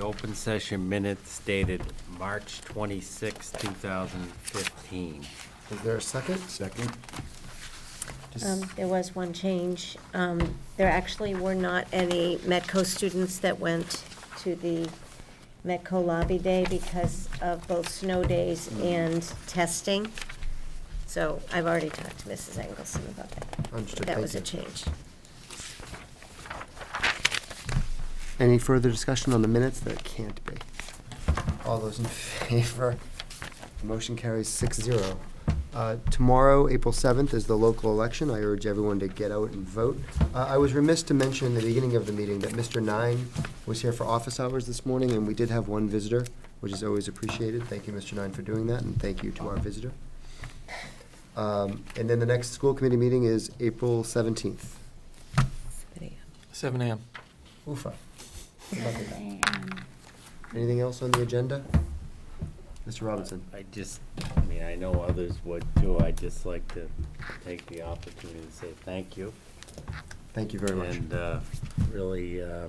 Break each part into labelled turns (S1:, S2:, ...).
S1: open session minutes dated March 26, 2015.
S2: Is there a second?
S3: Second?
S2: Just-
S4: Um, There was one change. Um, There actually were not any Metco students that went to the Metco Lobby Day because of both snow days
S2: Mm.
S4: and testing. So I've already talked to Mrs. Engelson about that.
S2: Understood,
S4: That
S2: thank
S4: was a
S2: you.
S4: change.
S2: Any further discussion on the minutes that can't be? All those in favor? Motion carries six zero. Uh, Tomorrow, April 7th, is the local election. I urge everyone to get out and vote. Uh, I was remiss to mention in the beginning of the meeting that Mr. Nine was here for office hours this morning, and we did have one visitor, which is always appreciated. Thank you, Mr. Nine, for doing that, and thank you to our visitor. Um, And then the next school committee meeting is April 17th.
S5: Seven AM.
S2: Ufa. Anything else on the agenda? Mr. Robinson?
S1: I just, I mean, I know others would too. I'd just like to take the opportunity to say thank you.
S2: Thank you very much.
S1: And uh, really, uh,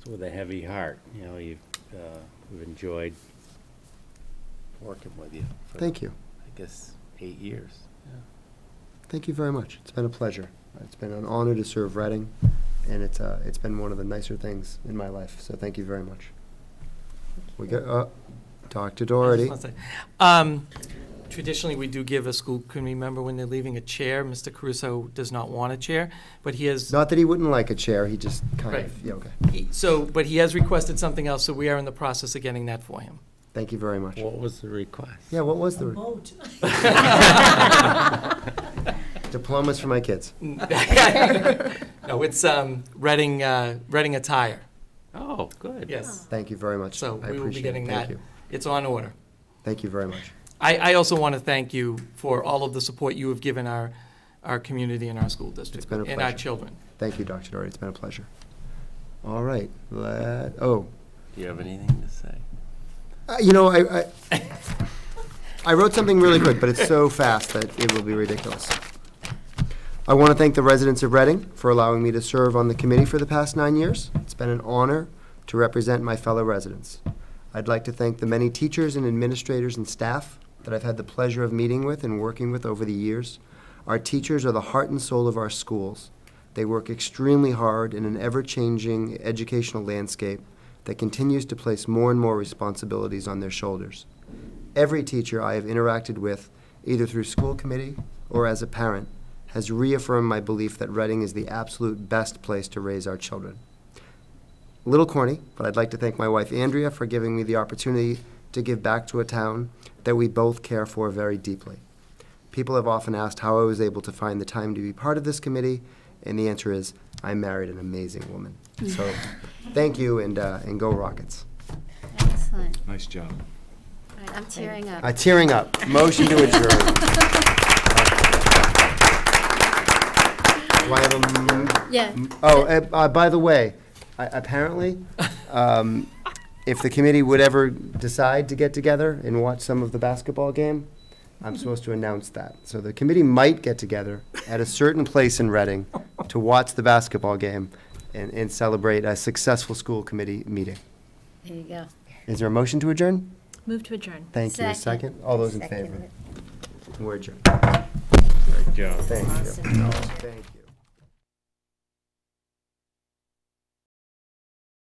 S1: it's with a heavy heart, you know, you've, uh, we've enjoyed working with you. for,
S2: Thank you.
S1: I guess, eight years.
S2: Thank you very much. It's been a pleasure. It's been an honor to serve Reading, and it's, uh, it's been one of the nicer things in my life, so thank you very much. We go, uh, Dr. Doherty.
S5: Um, traditionally, we do give a school committee member when they're leaving a chair. Mr. Caruso does not want a chair, but he has,
S2: Not that he wouldn't like a chair, he just kind
S5: Right.
S2: of, yeah, okay.
S5: he- so, but he has requested something else, so we are in the process of getting that for him.
S2: Thank you very much.
S1: What was the request?
S2: Yeah, what was the, diplomas for my kids.
S5: No, it's, um, Reading, uh, Reading attire.
S1: Oh, good.
S5: Yes.
S2: Thank you very much.
S5: So
S2: I
S5: we will be
S2: appreciate it.
S5: getting
S2: Thank
S5: that.
S2: you.
S5: It's on order.
S2: Thank you very much.
S5: I, I also want to thank you for all of the support you have given our, our community and our school district.
S2: been a
S5: And our
S2: pleasure.
S5: children.
S2: Thank you, Dr. Doherty. It's been a pleasure. All right. Let, oh,
S1: Do you have anything to say?
S2: uh, you know, I, I, I wrote something really quick, but it's so fast that it will be ridiculous. I want to thank the residents of Reading for allowing me to serve on the committee for the past nine years. It's been an honor to represent my fellow residents. I'd like to thank the many teachers and administrators and staff that I've had the pleasure of meeting with and working with over the years. Our teachers are the heart and soul of our schools. They work extremely hard in an ever changing educational landscape that continues to place more and more responsibilities on their shoulders. Every teacher I have interacted with, either through school committee or as a parent, has reaffirmed my belief that Reading is the absolute best place to raise our children. A little corny, but I'd like to thank my wife Andrea for giving me the opportunity to give back to a town that we both care for very deeply. People have often asked how I was able to find the time to be part of this committee, and the answer is I married an amazing woman. So, thank you, and uh, and go Rockets.
S6: Excellent.
S3: Nice job.
S6: I'm tearing up.
S2: Uh, tearing up. Motion to adjourn. Do I have a m-
S6: Yeah.
S2: Oh, uh, uh, by the way, I- apparently, um, if the committee would ever decide to get together and watch some of the basketball game, I'm supposed to announce that. So the committee might get together at a certain place in Reading to watch the basketball game and, and celebrate a successful school committee meeting.
S6: There you go.
S2: Is there a motion to adjourn?
S7: Move to adjourn.
S2: Thank you. A
S6: Second.
S2: Second? All those in
S4: Second
S2: favor?
S4: it.
S2: We're adjourned.
S1: Good job.
S2: Thank you.
S6: Awesome.
S2: Thank you.